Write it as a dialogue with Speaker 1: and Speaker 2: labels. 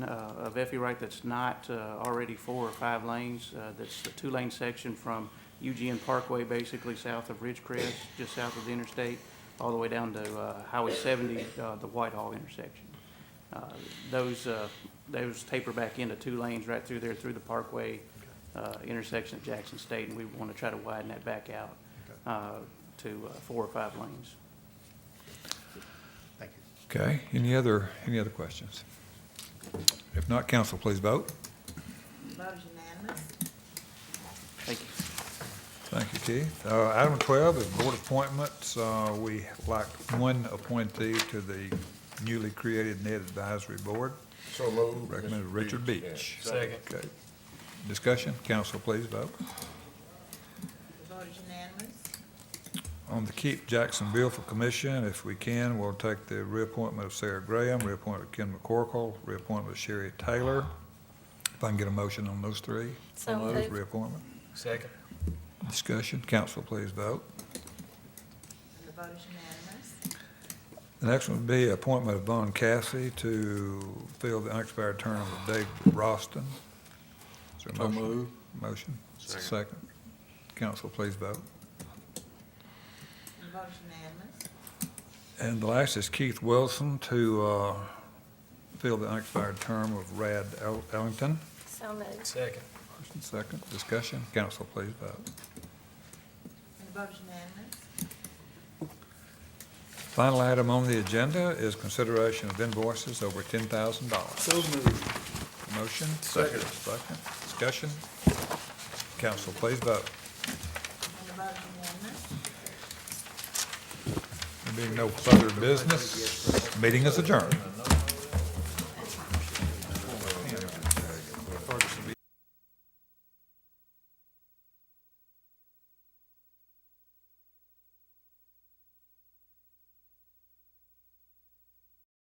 Speaker 1: uh, of Effie Wright that's not uh, already four or five lanes. Uh, That's the two-lane section from Eugene Parkway, basically south of Ridgecrest, just south of the interstate, all the way down to uh, Highway 70, uh, the Whitehall intersection. Uh, Those, uh, those taper back into two lanes right through there, through the Parkway uh, intersection at Jackson State, and we want to try to widen that back out uh, to uh, four or five lanes.
Speaker 2: Thank you.
Speaker 3: Okay, any other, any other questions? If not, council, please vote.
Speaker 4: Vote is unanimous.
Speaker 1: Thank you.
Speaker 3: Thank you, Keith. Uh, Item 12 is board appointments. Uh, We lack one appointee to the newly created Net Advisory Board.
Speaker 5: So moved.
Speaker 3: Recommended
Speaker 5: Mr.
Speaker 3: Richard Beach.
Speaker 5: Yeah.
Speaker 3: Second. Okay. Discussion, council, please vote.
Speaker 4: The vote is unanimous.
Speaker 3: On the Keep Jacksonville for commission, if we can, we'll take the reappointment of Sarah Graham, reappointment of Ken McCorkle, reappointment of Sherry Taylor. If I can get a motion on those three.
Speaker 6: So
Speaker 3: on those
Speaker 6: moved.
Speaker 3: Reappointment.
Speaker 2: Second.
Speaker 3: Discussion, council, please vote.
Speaker 4: The vote is unanimous.
Speaker 3: The next one would be appointment of Von Cassie to fill the unexpired term of Dave Roston. Is there a
Speaker 5: So
Speaker 3: motion?
Speaker 5: moved.
Speaker 3: Motion, second. Council, please vote.
Speaker 4: The vote is unanimous.
Speaker 3: And the last is Keith Wilson to uh, fill the unexpired term of Rad El- Ellington.
Speaker 6: So moved.
Speaker 2: Second.
Speaker 3: First and second, discussion. Council, please vote.
Speaker 4: The vote is unanimous.
Speaker 3: Final item on the agenda is consideration of invoices over ten thousand dollars. So moved. Motion? Second. Second. Discussion? Council, please vote.
Speaker 4: And the vote is unanimous.
Speaker 3: There being no further business, meeting is adjourned.